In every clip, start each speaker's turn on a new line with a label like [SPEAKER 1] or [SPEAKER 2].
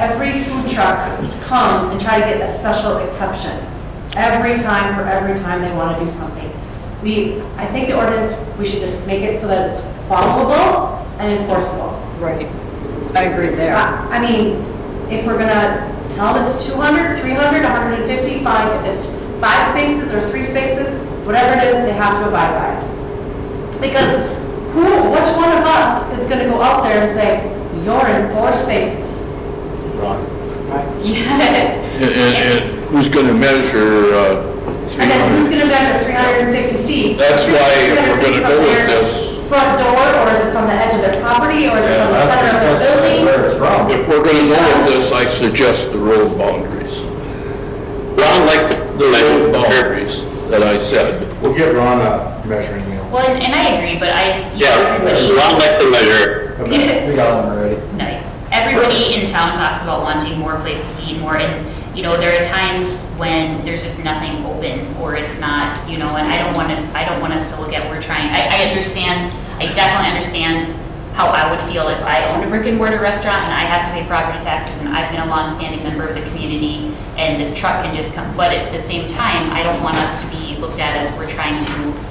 [SPEAKER 1] every food truck come and try to get a special exception every time for every time they want to do something. We, I think the ordinance, we should just make it so that it's followable and enforceable. Uh,
[SPEAKER 2] Right. I agree there.
[SPEAKER 1] I I mean, if we're gonna tell them it's 200, 300, 150, fine. If it's five spaces or three spaces, whatever it is, they have to abide by it. Because who, which one of us is gonna go out there and say, you're in four spaces?
[SPEAKER 3] Right.
[SPEAKER 1] Yeah.
[SPEAKER 4] And, and and who's going to measure uh,
[SPEAKER 1] And then who's
[SPEAKER 4] 300?
[SPEAKER 1] gonna measure 350 feet?
[SPEAKER 4] That's why we're
[SPEAKER 1] 350
[SPEAKER 4] going to go
[SPEAKER 1] from
[SPEAKER 4] with
[SPEAKER 1] their
[SPEAKER 4] this.
[SPEAKER 1] Front door, or is it from the edge of their property, or is it from the center of the building?
[SPEAKER 3] Where it's from.
[SPEAKER 4] If we're going to go with this, I suggest the road boundaries. Ron likes the road boundaries that I said.
[SPEAKER 3] We'll get Ron a measuring wheel.
[SPEAKER 5] Well, and and I agree, but I just, you know,
[SPEAKER 6] Yeah, Ron
[SPEAKER 5] everybody,
[SPEAKER 6] likes to measure.
[SPEAKER 3] We got one already.
[SPEAKER 5] nice. Everybody in town talks about wanting more places to eat more, and, you know, there are times when there's just nothing open, or it's not, you know, and I don't want to, I don't want us to look at, we're trying, I, I understand, I definitely understand how I would feel if I owned a brick and mortar restaurant and I have to pay property taxes, and I've been a longstanding member of the community, and this truck can just come, but at the same time, I don't want us to be looked at as we're trying to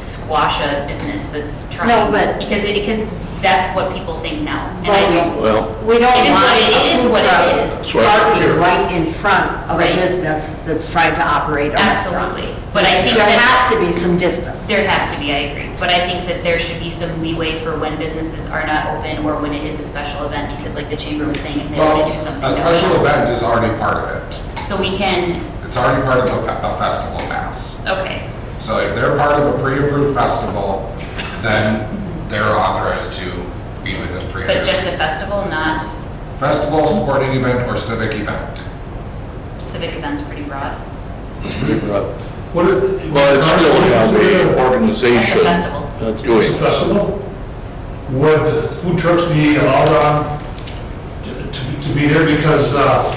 [SPEAKER 5] squash a business that's trying.
[SPEAKER 2] No, but-
[SPEAKER 5] Because, it- because that's what people think now. And I
[SPEAKER 2] Right.
[SPEAKER 5] don't-
[SPEAKER 4] Well,
[SPEAKER 2] We don't
[SPEAKER 5] It is
[SPEAKER 2] want
[SPEAKER 5] what it
[SPEAKER 2] a
[SPEAKER 5] is,
[SPEAKER 2] food
[SPEAKER 5] what it
[SPEAKER 2] truck
[SPEAKER 5] is.
[SPEAKER 4] That's right.
[SPEAKER 2] parking right in front of a
[SPEAKER 5] Right.
[SPEAKER 2] business that's trying to operate a restaurant.
[SPEAKER 5] Absolutely. But I think
[SPEAKER 2] There
[SPEAKER 5] that,
[SPEAKER 2] has to be some distance.
[SPEAKER 5] there has to be, I agree. But I think that there should be some leeway for when businesses are not open or when it is a special event, because like the chamber was saying, if they
[SPEAKER 7] Well,
[SPEAKER 5] want to do something.
[SPEAKER 7] a
[SPEAKER 5] they'll-
[SPEAKER 7] special event is already part of it.
[SPEAKER 5] So we can,
[SPEAKER 7] It's already part of a a festival pass.
[SPEAKER 5] okay,
[SPEAKER 7] So if they're part of a pre-approved festival, then they're authorized to be within
[SPEAKER 5] but
[SPEAKER 7] 300.
[SPEAKER 5] just a festival, not
[SPEAKER 7] Festival, sporting event, or civic event.
[SPEAKER 5] civic events pretty broad.
[SPEAKER 8] What are-
[SPEAKER 4] uh, well, it's still an
[SPEAKER 5] That's a
[SPEAKER 4] organization
[SPEAKER 5] festival.
[SPEAKER 4] doing.
[SPEAKER 8] It's a festival. Would food trucks be allowed on, to, to to be there because, uh,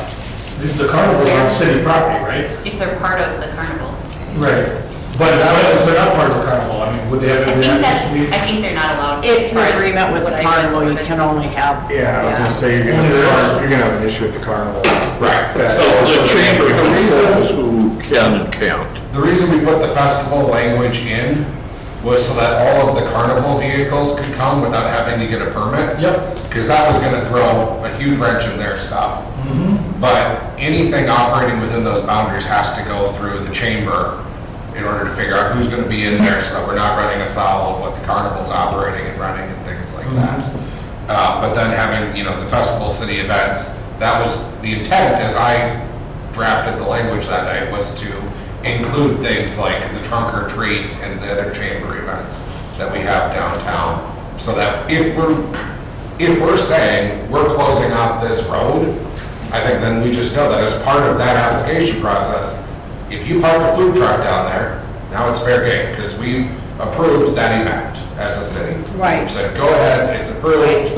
[SPEAKER 8] the- the carnival is on city property, right?
[SPEAKER 5] If they're part of the carnival.
[SPEAKER 8] Right. But if they're not part of the carnival, I mean, would they have
[SPEAKER 5] I
[SPEAKER 8] any
[SPEAKER 5] think
[SPEAKER 8] access
[SPEAKER 5] that's,
[SPEAKER 8] to be?
[SPEAKER 5] I think they're not allowed. as
[SPEAKER 2] It's
[SPEAKER 5] far
[SPEAKER 2] an
[SPEAKER 5] as
[SPEAKER 2] agreement with
[SPEAKER 5] what I
[SPEAKER 2] the
[SPEAKER 5] read
[SPEAKER 2] carnival,
[SPEAKER 5] the
[SPEAKER 2] you can
[SPEAKER 5] ordinance.
[SPEAKER 2] only have.
[SPEAKER 3] Yeah, I was gonna say, you're gonna, you're gonna have an issue with the carnival.
[SPEAKER 7] Right.
[SPEAKER 3] Yeah.
[SPEAKER 4] So the chamber controls who can and can't.
[SPEAKER 7] The reason we put the festival language in was so that all of the carnival vehicles could come without having to get a permit. Yep. Because that was gonna throw a huge wrench in their stuff. But anything operating within those boundaries has to go through the chamber in order to figure out who's gonna be in there so that we're not running afoul of what the carnival's operating and running and things like that. Uh, but then having, you know, the festival, city events, that was the intent as I drafted the language that night was to include things like the trunk or treat and the other chamber events that we have downtown. So that if we're, if we're saying we're closing off this road, I think then we just know that as part of that application process, if you park a food truck down there, now it's fair game because we've approved that event as a city.
[SPEAKER 2] Right.
[SPEAKER 7] We've said, go ahead, it's approved,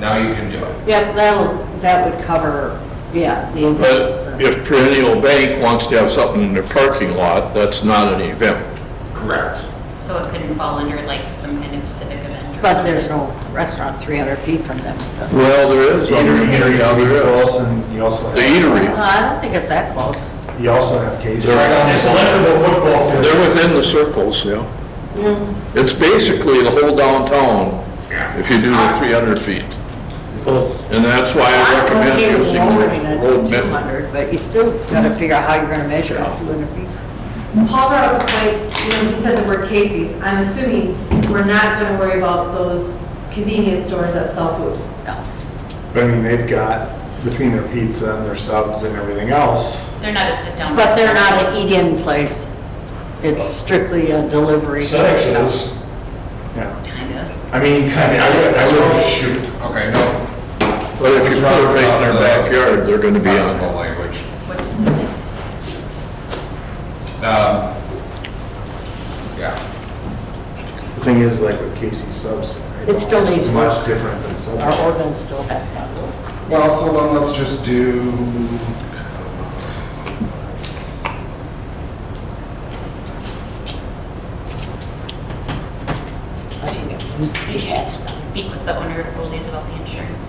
[SPEAKER 7] now you can do it.
[SPEAKER 2] Yep, that'll, that would cover, yeah, the events.
[SPEAKER 4] But
[SPEAKER 2] and-
[SPEAKER 4] if Perennial Bank wants to have something in their parking lot, that's not an event.
[SPEAKER 7] Correct.
[SPEAKER 5] So it couldn't fall under like some kind of civic event. or
[SPEAKER 2] But
[SPEAKER 5] something.
[SPEAKER 2] there's no restaurant 300 feet from them.
[SPEAKER 4] Well, there is.
[SPEAKER 3] Eatery, eatery,
[SPEAKER 4] Yeah, there is.
[SPEAKER 3] and you also
[SPEAKER 4] The
[SPEAKER 3] have,
[SPEAKER 2] No,
[SPEAKER 4] eatery,
[SPEAKER 2] I don't think it's that close.
[SPEAKER 3] you also have cases.
[SPEAKER 4] There is.
[SPEAKER 8] It's a level football field.
[SPEAKER 4] they're within the circles, yeah. It's basically the whole downtown, if you do the 300 feet. And that's why I recommend
[SPEAKER 2] okay with
[SPEAKER 4] using
[SPEAKER 2] lowering it to
[SPEAKER 4] road measure.
[SPEAKER 2] 200, but you still gotta figure out how you're gonna measure it, 200 feet.
[SPEAKER 1] Paul brought up a point, you know, you said the word Casey's. I'm assuming we're not going to worry about those convenience stores that sell food.
[SPEAKER 3] But I mean, they've got, between their pizza and their subs and everything else,
[SPEAKER 5] They're not a sit-down.
[SPEAKER 2] But they're not an eat-in place. It's strictly a delivery.
[SPEAKER 8] Senex is,
[SPEAKER 3] yeah.
[SPEAKER 5] Kind of.
[SPEAKER 3] I mean, I mean, I would, I
[SPEAKER 7] Oh,
[SPEAKER 3] would,
[SPEAKER 7] shoot, okay, no,
[SPEAKER 4] But if you put it right in their backyard, they're going to be on it.
[SPEAKER 7] festival language.
[SPEAKER 5] What does it say?
[SPEAKER 7] Um, Yeah,
[SPEAKER 3] the thing is, like with Casey's subs, I
[SPEAKER 2] It still
[SPEAKER 3] don't-
[SPEAKER 2] needs
[SPEAKER 3] it's
[SPEAKER 2] work.
[SPEAKER 3] much different than
[SPEAKER 2] Our
[SPEAKER 3] subs.
[SPEAKER 2] ordinance still has to have.
[SPEAKER 7] well, so then let's just do,
[SPEAKER 5] Did you speak with the owner of Goldie's about the insurance?